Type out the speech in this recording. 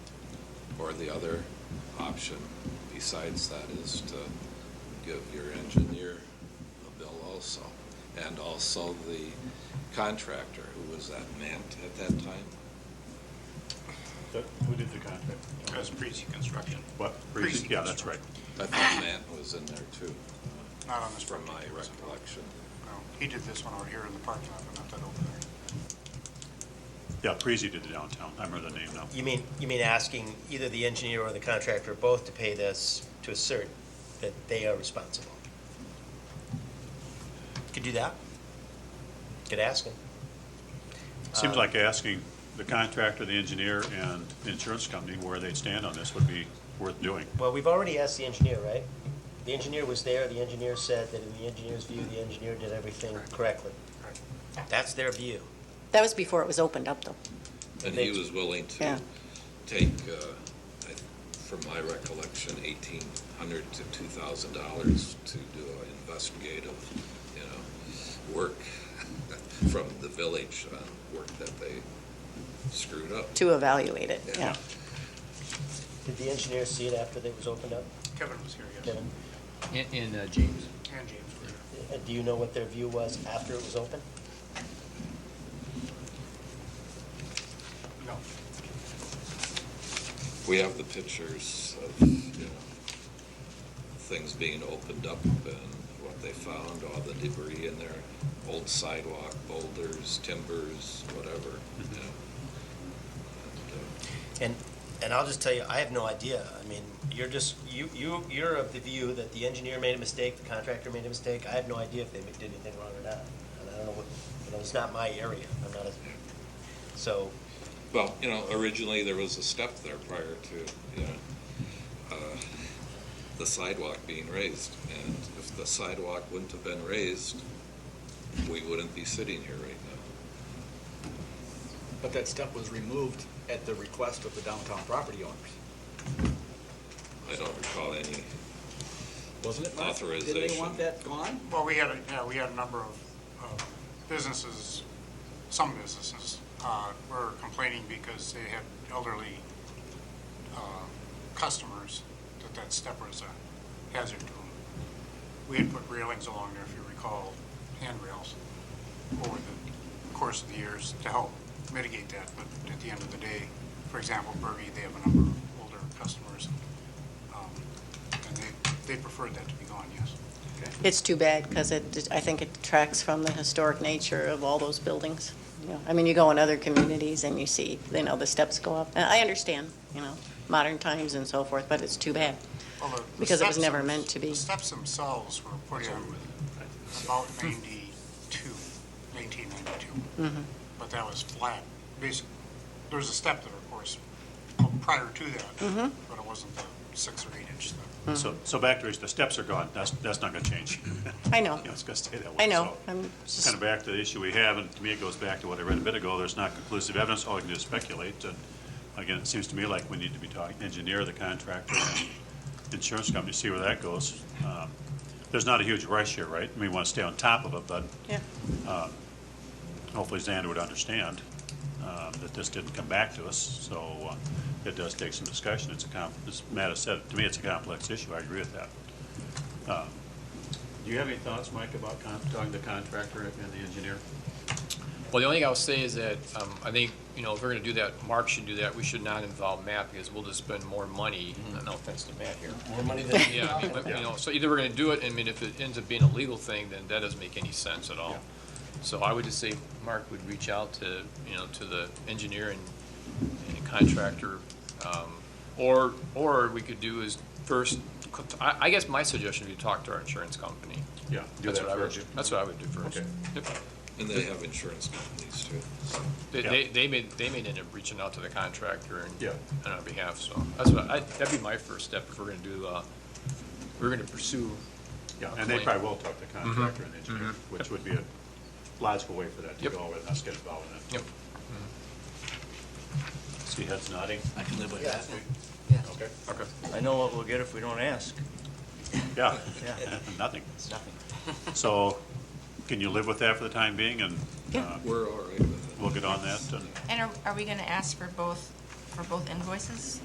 Or the other option besides that is to give your engineer a bill also, and also the contractor, who was that Mant at that time? That- Who did the contract? That's Prezi Construction, What? Breezy. Yeah, that's right. I thought Mant was in there too, not on this from my project. recollection. No, Oh, he did this one out here in the parking lot, but not that over there. Yeah, Prezi did the downtown. I remember the name now. You mean, you mean asking either the engineer or the contractor both to pay this to assert that they are responsible? Could do that. Could ask them. Seems like asking the contractor, the engineer, and the insurance company where they'd stand on this would be worth doing. Well, we've already asked the engineer, right? The engineer was there, the engineer said that in the engineer's view, the engineer did everything correctly. That's their view. That was before it was opened up, though. And he was willing to Yeah. take, uh, I- from my recollection, eighteen hundred to two thousand dollars to do an investigative, you know, work from the village on work that they screwed up. to evaluate it, yeah. Did the engineer see it after it was opened up, Kevin was here, yes. Kevin? And, and uh, James, And James were here. Uh, Do you know what their view was after it was open? No, We have the pictures of, you know, things being opened up and what they found, all the debris in there, old sidewalk, boulders, timbers, whatever, you know. And, uh, And, and I'll just tell you, I have no idea. I mean, you're just, you, you, you're of the view that the engineer made a mistake, the contractor made a mistake. I have no idea if they did anything wrong or not. And I don't know what, you know, it's not my area. I'm not a, so, Well, you know, originally there was a step there prior to, you know, uh, the sidewalk being raised. And if the sidewalk wouldn't have been raised, we wouldn't be sitting here right now. But that step was removed at the request of the downtown property owners, I don't recall any, wasn't it? Mark? Didn't Authorization. they want that gone? well, we had, a yeah, we had a number of uh, businesses, some businesses, uh, were complaining because they had elderly uh, customers that that step was a hazard to them. We had put railings along there, if you recall, handrails, over the course of the years to help mitigate that, but at the end of the day, for example, Burgie, they have a number of older customers, um, and they, they preferred that to be gone, yes. It's too bad, because it, I think it detracts from the historic nature of all those buildings. You know, I mean, you go in other communities and you see, you know, the steps go up. And I understand, you know, modern times and so forth, but it's too bad. Well, the- the Because it was steps never them- meant to be. The steps themselves were put in about 92, Mm-hmm. 1992. But that was flat, basically. There was a step there, of course, prior to Mm-hmm. that, but it wasn't the six or eight inch step. So, so back to, it, the steps are gone. That's, that's not gonna change. I know, Yeah, it's gonna stay that way. I know, So- I'm It's just, kind of back to the issue we have, and to me, it goes back to what I read a bit ago, there's not conclusive evidence, all we can do is speculate, and again, it seems to me like we need to be talking, engineer, the contractor, and insurance company, see where that goes. Um, There's not a huge rush here, right? We want to stay on top of it, but um, yeah. hopefully Xander would understand um, that this didn't come back to us, so uh, it does take some discussion. It's a, com- as Matt has said, to me, it's a complex issue, I agree with that. Uh, Do you have any thoughts, Mike, about con- talking to the contractor and the engineer? well, the only thing I'll say is that, um, I think, you know, if we're gonna do that, Mark should do that, we should not involve Matt, because we'll just spend more money, Mm-hmm. no offense to Matt here. More money than. Yeah, I mean, but, you know, so either we're gonna do it, I mean, if it ends up being a legal thing, then that doesn't make any sense at all. So I would just say, Mark would reach out to, you know, to the engineer and and contractor, um, or, or we could do is first, I, I guess my suggestion would be talk to our insurance company. Yeah. That's what I would, that's what I would do first. Yep. and they have insurance companies too. so. They, Yeah. they, they may, they may end up reaching out to the contractor and. Yeah. On our behalf, so that's what, I, that'd be my first step if we're gonna do, uh, we're gonna pursue. Yeah, and they Claim. probably will talk to the Mm-hmm. contractor and the engineer, which would be a logical way for that to Yep. go, with us get involved in it. Mm-hmm. Yep. See heads nodding? I can live with that. Okay. Okay. I know what we'll get if we don't ask. Yeah, Yeah, nothing. it's nothing. So can you live with that for the time being, and Yeah. We're all right with it. we'll get on that, and And are, are we gonna ask for both, for both invoices?